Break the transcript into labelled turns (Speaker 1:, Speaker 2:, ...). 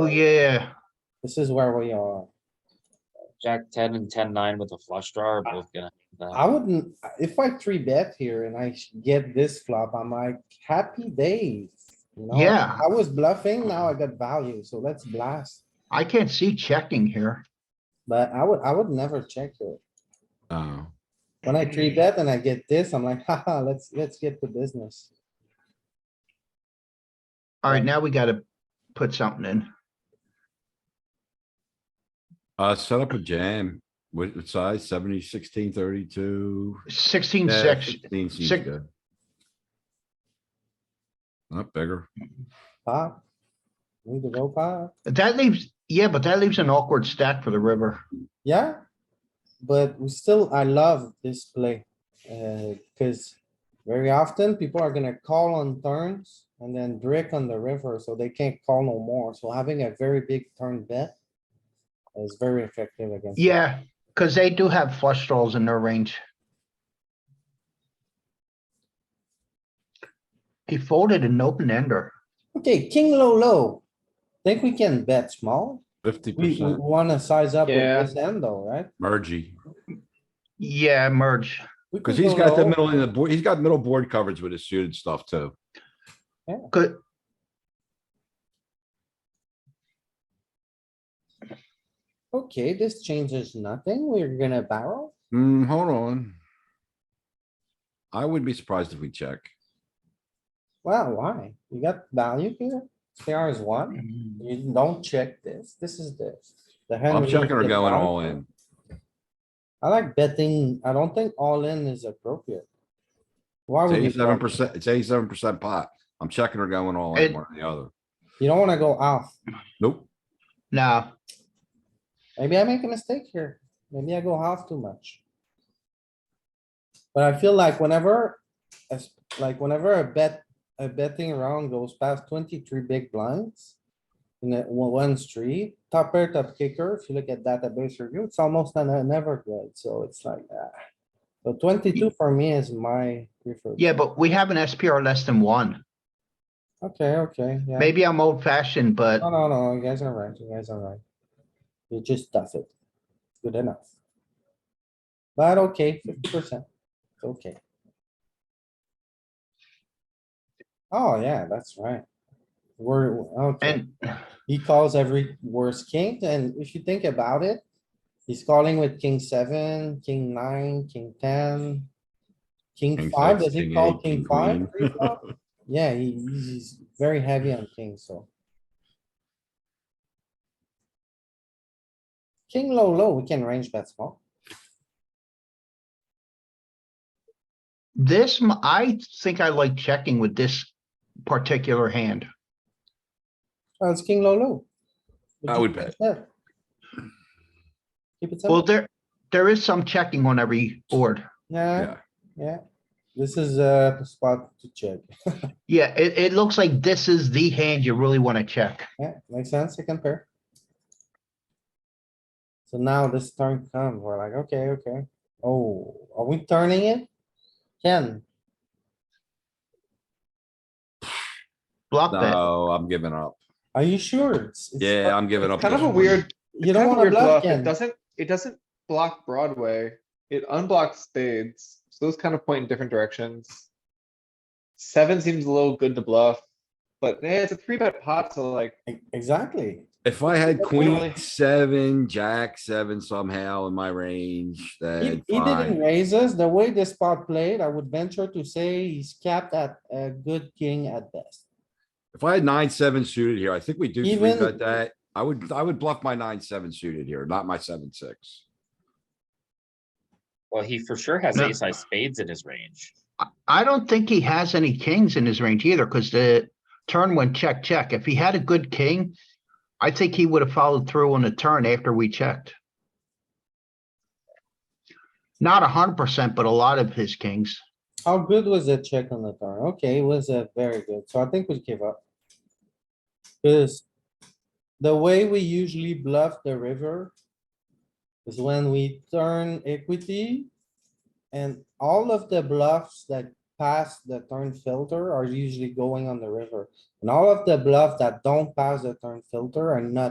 Speaker 1: Oh, yeah,
Speaker 2: This is where we are.
Speaker 3: Jack ten and ten nine with a flush draw are both gonna.
Speaker 2: I wouldn't, if I three bet here and I sh- get this flop, I'm like, happy days. you know?
Speaker 1: Yeah.
Speaker 2: I was bluffing, now I got value, so let's blast.
Speaker 1: I can't see checking here.
Speaker 2: But I would, I would never check it.
Speaker 4: Oh,
Speaker 2: When I three bet and I get this, I'm like, haha, let's, let's get the business.
Speaker 1: Alright, now we gotta put something in.
Speaker 4: uh, set up a jam. What what size? Seventy, sixteen, thirty-two?
Speaker 1: Sixteen,
Speaker 4: Yeah,
Speaker 1: six,
Speaker 4: 16 seems
Speaker 1: six-
Speaker 4: good. Not bigger.
Speaker 2: Pop. Need to go pop.
Speaker 1: that leaves, yeah, but that leaves an awkward stack for the river.
Speaker 2: Yeah, but we still, I love this play, uh, cuz very often people are gonna call on turns and then brick on the river, so they can't call no more. So having a very big turn bet is very effective against. that.
Speaker 1: Yeah, cuz they do have flush draws in their range. He folded an open ender.
Speaker 2: Okay, king low, low. Think we can bet small?
Speaker 4: Fifty
Speaker 2: We, we
Speaker 4: percent
Speaker 2: wanna size up with
Speaker 5: Yeah.
Speaker 2: this end though, right?
Speaker 4: mergey,
Speaker 1: Yeah, merge.
Speaker 2: We
Speaker 4: because
Speaker 2: could
Speaker 4: he's
Speaker 2: go
Speaker 4: got the
Speaker 2: low.
Speaker 4: middle and the board, he's got middle board coverage with his suited stuff too.
Speaker 1: Good.
Speaker 2: Okay, this changes nothing. We're gonna barrel.
Speaker 4: Hmm, hold on. I would be surprised if we check.
Speaker 2: Wow, why? You got value here? CR is one. You don't check this. This is the, the hand.
Speaker 4: I'm
Speaker 2: we're gonna
Speaker 4: checking or
Speaker 2: get
Speaker 4: going
Speaker 2: down
Speaker 4: all
Speaker 2: to.
Speaker 4: in.
Speaker 2: I like betting. I don't think all in is appropriate. Why
Speaker 4: It's
Speaker 2: would you?
Speaker 4: eighty-seven
Speaker 2: go-
Speaker 4: percent, it's eighty-seven percent pot. I'm checking or going all
Speaker 1: It-
Speaker 4: in, one or the other.
Speaker 2: You don't wanna go off.
Speaker 4: Nope.
Speaker 1: Nah,
Speaker 2: Maybe I make a mistake here. Maybe I go half too much. But I feel like whenever, as- like whenever a bet, a betting round goes past twenty-three big blinds. In that one, one street, top pair, top kicker, if you look at database review, it's almost never, never good, so it's like, ah. So twenty-two for me is my preferred.
Speaker 1: yeah, but we have an SPR less than one.
Speaker 2: Okay, okay, yeah.
Speaker 1: Maybe I'm old fashioned, but
Speaker 2: No, no, no, you guys are right, you guys are right. You just stuff it. Good enough. But okay, fifty percent, okay. Oh, yeah, that's right. We're, okay,
Speaker 1: and
Speaker 2: he calls every worst king, and if you think about it, he's calling with king seven, king nine, king ten. King
Speaker 4: King
Speaker 2: five,
Speaker 4: six,
Speaker 2: does he
Speaker 4: king
Speaker 2: call
Speaker 4: eight,
Speaker 2: king
Speaker 4: king
Speaker 2: five?
Speaker 4: queen.
Speaker 2: pre-flop? Yeah, he- he's very heavy on king, so. King low, low, we can range bet small.
Speaker 1: this, m- I think I like checking with this particular hand.
Speaker 2: Well, Oh, it's king low, low.
Speaker 4: I would bet.
Speaker 2: Yeah. Keep it
Speaker 1: Well,
Speaker 2: simple.
Speaker 1: there, there is some checking on every board.
Speaker 2: Nah,
Speaker 4: Yeah,
Speaker 2: yeah. This is a spot to check.
Speaker 1: Yeah, it, it looks like this is the hand you really want to check.
Speaker 2: Yeah, makes sense, second pair. So now this turn comes, we're like, okay, okay. Oh, are we turning it? Ken,
Speaker 1: Block bet.
Speaker 4: no, I'm giving up.
Speaker 2: are you sure? It's- it's
Speaker 4: Yeah, I'm giving up.
Speaker 5: Kind of
Speaker 4: this
Speaker 5: a
Speaker 4: one.
Speaker 5: weird,
Speaker 2: You
Speaker 5: kind
Speaker 2: don't
Speaker 5: of a
Speaker 2: wanna
Speaker 5: weird
Speaker 2: bluff
Speaker 5: bluff. It
Speaker 2: Ken.
Speaker 5: doesn't, it doesn't block Broadway. It unblocks spades. So those kind of point in different directions. Seven seems a little good to bluff, but eh, it's a three bet pot, so like,
Speaker 2: E- Exactly.
Speaker 4: If I had
Speaker 5: Really?
Speaker 4: queen seven, jack seven somehow in my range,
Speaker 2: He
Speaker 4: then
Speaker 2: he didn't
Speaker 4: fine.
Speaker 2: raise us. The way this spot played, I would venture to say he's capped at a good king at best.
Speaker 4: If I had nine, seven suited here, I think we do three
Speaker 2: Even-
Speaker 4: bet that. I would, I would bluff my nine, seven suited here, not my seven, six.
Speaker 3: Well, he for sure has
Speaker 1: No.
Speaker 3: ace high spades in his range.
Speaker 1: I don't think he has any kings in his range either, because the turn went check, check. If he had a good king, I think he would have followed through on the turn after we checked. Not a hundred percent, but a lot of his kings.
Speaker 2: How good was the check on the turn? Okay, it was a very good, so I think we give up. Cause the way we usually bluff the river is when we turn equity and all of the bluffs that pass the turn filter are usually going on the river. And all of the bluff that don't pass the turn filter are not